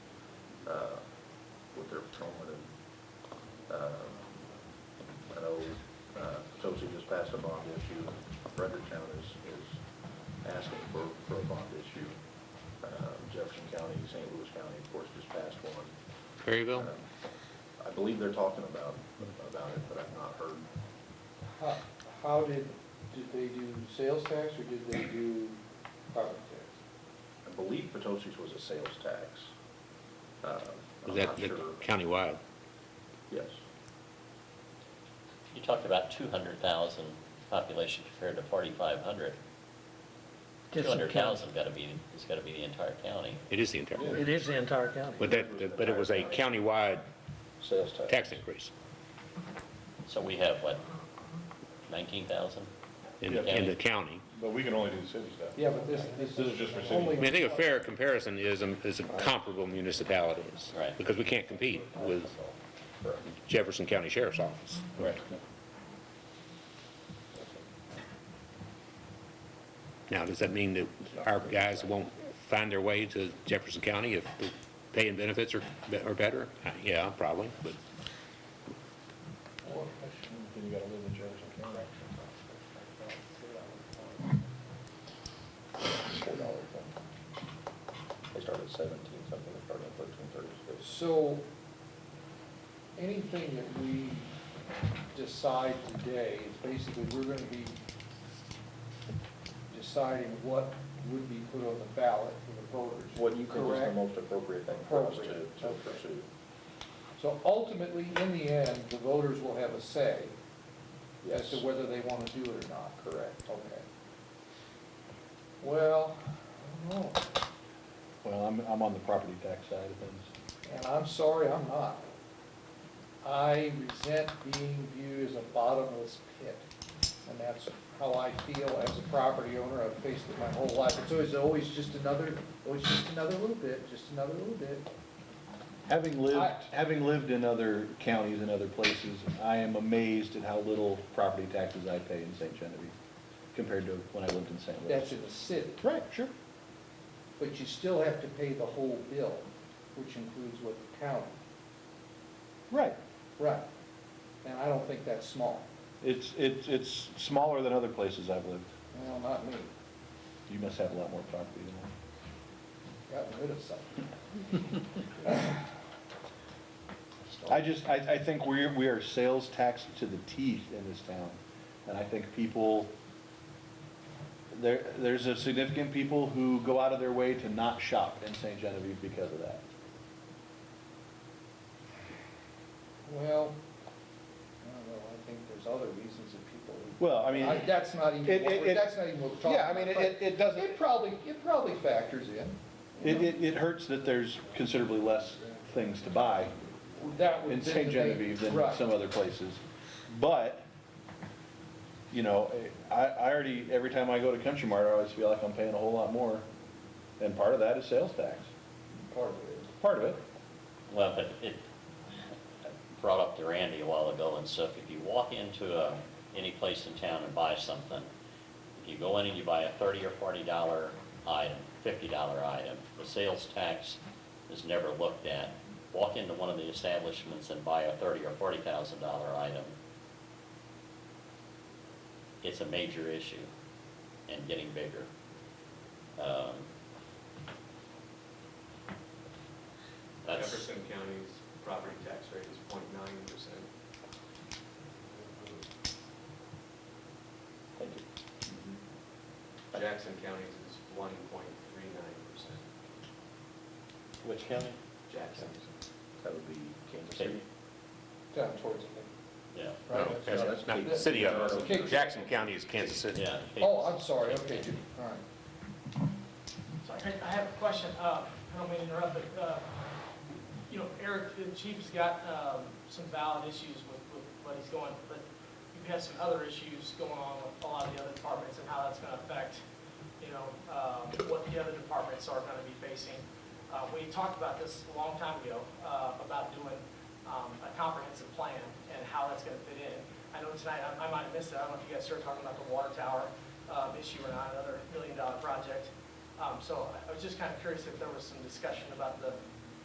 uh, Coleman and, um, I know, uh, Tosi just passed a bond issue. Frederick County is, is asking for, for a bond issue. Um, Jefferson County, St. Louis County, of course, just passed one. Perryville? Um, I believe they're talking about, about it, but I've not heard. How- How did, did they do sales tax or did they do property tax? I believe Potosi's was a sales tax. Um, Was I'm that not the sure. countywide? Yes. You talked about two hundred thousand population compared to forty-five hundred. Two Just the hundred thousand gotta be, has gotta be the entire county. It is the entire, county. It is the entire but county. that, but it was a countywide Sales tax. tax increase So we have, what, nineteen thousand? in, the- in the county. But we can only do the city stuff. Yeah, but this, this is. This is just for city. only- I mean, I think a fair comparison is, um, is comparable municipalities. Right. Because we can't compete with Correct. Jefferson County Sheriff's Office. Right. Now, does that mean that our guys won't find their way to Jefferson County if the pay and benefits are, be- are better? Uh, Yeah, probably, but Then you gotta live in Jefferson County. Four dollars. They started at seventeen something, they started at thirteen thirty-six. So, anything that we decide today is basically, we're gonna be deciding what would be put on the ballot for the voters. What you think is the correct? most appropriate thing for us to, Appropriate, to okay. pursue? So ultimately, in the end, the voters will have a say as to whether they want to do it or not. Correct. Okay. Well, I don't know, Well, I'm, I'm on the property tax side of things. and I'm sorry, I'm not. I resent being viewed as a bottomless pit, and that's how I feel as a property owner. I've faced it my whole life. It's always, always just another, always just another little bit, just another little bit. Having lived, I- having lived in other counties and other places, I am amazed at how little property taxes I pay in St. Genevieve compared to when I lived in St. Louis. That's in the city. Right, sure. But you still have to pay the whole bill, which includes what the county. Right. Right. And I don't think that's small. It's, it's, it's smaller than other places I've lived. Well, not me. You must have a lot more property than I. Got rid of some. I just, I, I think we're, we are sales taxed to the teeth in this town. And I think people, there, there's a significant people who go out of their way to not shop in St. Genevieve because of that. Well, I don't know, I think there's other reasons that people. Well, I mean, I- That's not even, it- what it- we're- it- that's not even what we're talking yeah, I about. mean, it- but it- it doesn't- It probably, it probably factors in. you it, know? it, it hurts that there's considerably less things to buy That would. in then St. they- Genevieve than right. some other places. But, you know, I, I already, every time I go to Country Mart, I always feel like I'm paying a whole lot more. And part of that is sales tax, Part of it. part of it. Well, but it, I brought up to Randy a while ago and stuff, if you walk into a, any place in town and buy something, if you go in and you buy a thirty or forty dollar item, fifty dollar item, the sales tax is never looked at. Walk into one of the establishments and buy a thirty or forty thousand dollar item, it's a major issue and getting bigger. Um, that's- Jefferson County's property tax rate is 0.9 percent. Thank you. Jackson County's is one point three nine percent. Which county? Jackson's. That would be Kansas City. City. Down towards me, Yeah. right? No, That's- that's Oh, not the city of it. Jackson County is Kansas City. Yeah. Oh, I'm sorry, okay, dude, all right. So I, I have a question, uh, I don't mean to interrupt, but, uh, you know, Eric, the chief's got, um, some valid issues with, with what he's going, but you've had some other issues going on with a lot of the other departments and how that's gonna affect, you know, um, what the other departments are gonna be facing. Uh, we talked about this a long time ago, uh, about doing, um, a comprehensive plan and how that's gonna fit in. I know tonight, I, I might have missed it, I don't know if you guys started talking about the water tower, um, issue or not, another million dollar project. Um, So I- I was just kind of curious if there was some discussion about the